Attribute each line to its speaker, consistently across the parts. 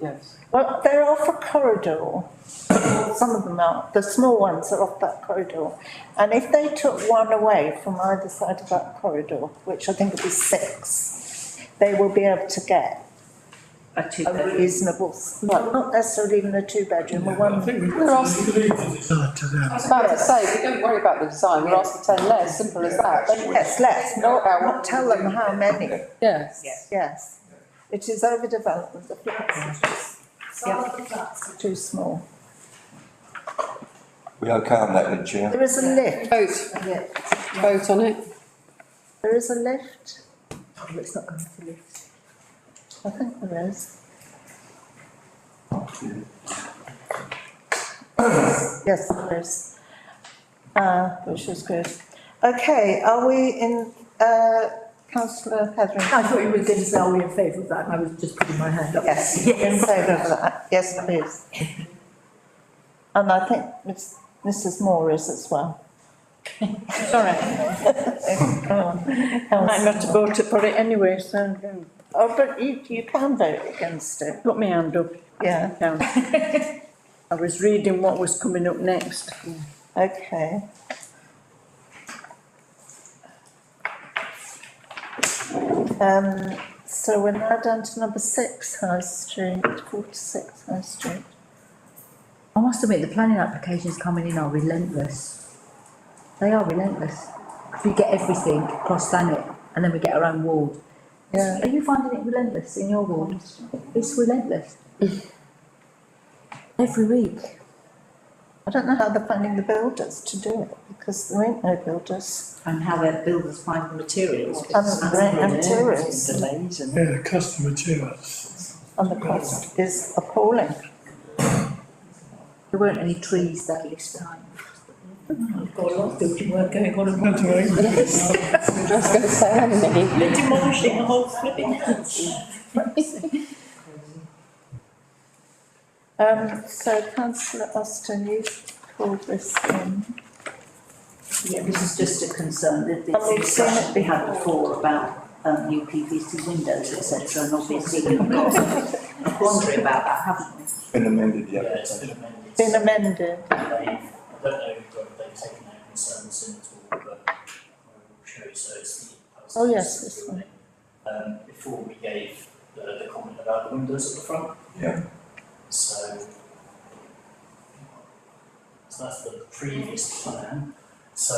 Speaker 1: Yes.
Speaker 2: Well, they're off a corridor. Some of them are, the small ones are off that corridor. And if they took one away from either side of that corridor, which I think would be six, they will be able to get
Speaker 1: A two
Speaker 2: a
Speaker 1: bedroom.
Speaker 2: reasonable, well, not necessarily even a two-bedroom, a
Speaker 3: I
Speaker 2: one.
Speaker 3: think we've
Speaker 4: We're
Speaker 3: got
Speaker 4: asked-
Speaker 3: to leave the design to
Speaker 4: I
Speaker 3: them.
Speaker 4: was about to say, we don't worry about the design, we're asked for ten less, simple as that. They-
Speaker 2: Yes, let's not, not tell them how many,
Speaker 4: Yes.
Speaker 2: yes. It is overdevelopment, the flats are just, some of the flats are too small.
Speaker 5: We okay on that then, Chair?
Speaker 2: There is a lift,
Speaker 4: Vote,
Speaker 2: yeah,
Speaker 4: vote on it.
Speaker 2: There is a lift? Oh, it's not going to be a lift. I think there is. Yes, there is. Uh, which is good. Okay, are we in, uh, councillor Heatherington?
Speaker 6: I thought you were going to say, are we in favour of that? And I was just putting my hand up.
Speaker 2: Yes, in favour of that, yes, please. And I think Miss- Mrs Moore is as well.
Speaker 7: Sorry,
Speaker 2: Come on.
Speaker 7: I'm not about to put it anyway, so
Speaker 2: Oh, but you, you can vote against it,
Speaker 7: put my hand up.
Speaker 2: yeah.
Speaker 7: down. I was reading what was coming up next.
Speaker 2: Okay. Um, so we're now down to number six High Street, forty-six High Street.
Speaker 8: I must admit, the planning applications coming in are relentless. They are relentless. We get everything across Thanet and then we get our own ward.
Speaker 2: Yeah.
Speaker 8: Are you finding it relentless in your ward? It's relentless. Every week.
Speaker 2: I don't know how they're finding the builders to do it, because there ain't no builders. Um,
Speaker 9: and how their builders find the materials.
Speaker 2: And there ain't no tourists,
Speaker 9: Delays and.
Speaker 3: Yeah, the customer to us.
Speaker 2: and the cost is appalling.
Speaker 8: There weren't any trees that this time.
Speaker 6: We've got a lot of building work going on at
Speaker 3: Not
Speaker 6: once.
Speaker 3: to England.
Speaker 4: I was going to say, how many?
Speaker 9: They're demolishing a whole flipping house.
Speaker 2: Um, so councillor Austin, you called this in.
Speaker 9: Yeah, this is just a concern that
Speaker 2: And
Speaker 9: the
Speaker 2: we've seen it
Speaker 9: discussion we had before about um new PVC windows, et cetera, and obviously we've got a quandary about that, haven't we?
Speaker 5: Been amended,
Speaker 10: Yeah,
Speaker 5: yeah.
Speaker 10: it's been amended.
Speaker 2: Been amended,
Speaker 10: They, I don't know whether they've taken their concerns in at all, but I will show you, so it's the.
Speaker 2: Oh, yes, this one.
Speaker 10: Um, before we gave the, the comment about the windows at the front.
Speaker 5: Yeah.
Speaker 10: So. So that's the previous plan, so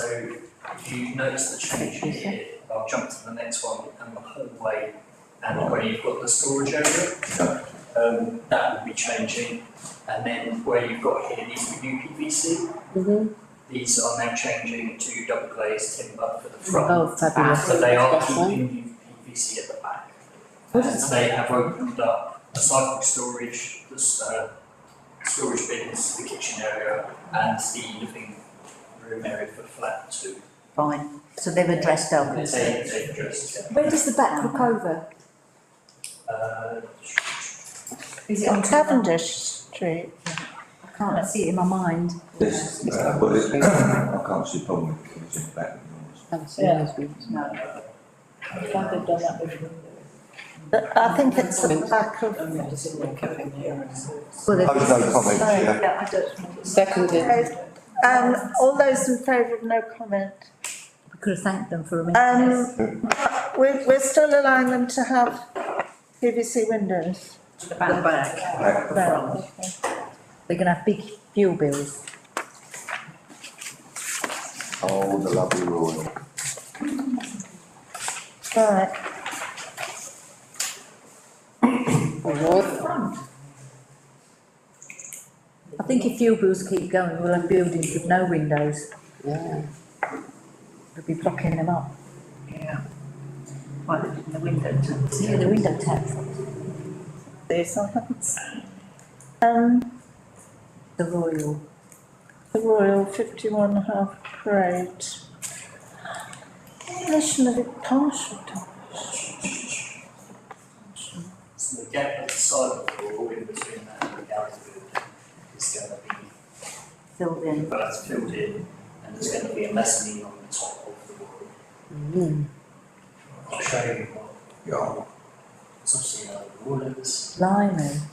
Speaker 10: if you notice the change here, I'll jump to the next one, and the hallway, and where you've got the storage area.
Speaker 5: Yeah.
Speaker 10: Um, that will be changing, and then where you've got here, these are new PVC,
Speaker 4: Mhm.
Speaker 10: these are now changing to double glazed timber for the front.
Speaker 4: Oh, fabulous.
Speaker 10: But they are
Speaker 4: That's right.
Speaker 10: keeping new PVC at the back. And they have opened up a sidewalk storage, this, uh, storage bins, the kitchen area, and the living room area for flat two.
Speaker 9: Fine, so they've addressed our
Speaker 10: They,
Speaker 9: concerns.
Speaker 10: they addressed,
Speaker 8: Where does the back look over?
Speaker 10: uh,
Speaker 8: Is
Speaker 2: on
Speaker 8: the-
Speaker 2: Cavendish Street.
Speaker 8: I can't see it in my mind.
Speaker 5: This, uh, well, it- I can't see a problem with it, it's in the back of yours.
Speaker 9: No.
Speaker 2: I think it's the back of,
Speaker 9: I'm not sitting there coping here
Speaker 8: Well,
Speaker 5: Oh,
Speaker 8: there's-
Speaker 5: no comment, Chair.
Speaker 9: Yeah, I don't.
Speaker 4: Seconded.
Speaker 2: um, all those in favour of no comment.
Speaker 8: we could have thanked them for a minute.
Speaker 2: Um, we're, we're still allowing them to have PVC windows.
Speaker 9: The back.
Speaker 5: Back.
Speaker 9: The front.
Speaker 8: They're gonna have big fuel bills.
Speaker 5: Oh, the lovely Royal.
Speaker 2: Right,
Speaker 8: I think if fuel bills keep going, we'll have buildings with no windows.
Speaker 4: Yeah.
Speaker 8: They'll be blocking them up.
Speaker 9: Yeah. Why they did the window to.
Speaker 8: Yeah, the window tax,
Speaker 2: these are hands. Um,
Speaker 8: the royal.
Speaker 2: the Royal fifty-one half parade. Demolition of it partial demolition.
Speaker 10: so the gap at the sidewalk wall in between that and the gallery building is gonna be
Speaker 9: Filled in.
Speaker 10: but that's filled in, and there's gonna be a mezzanine on the top of the wall. I'll show you what,
Speaker 5: Yeah.
Speaker 10: it's obviously, uh, the wall is.
Speaker 8: Blimey.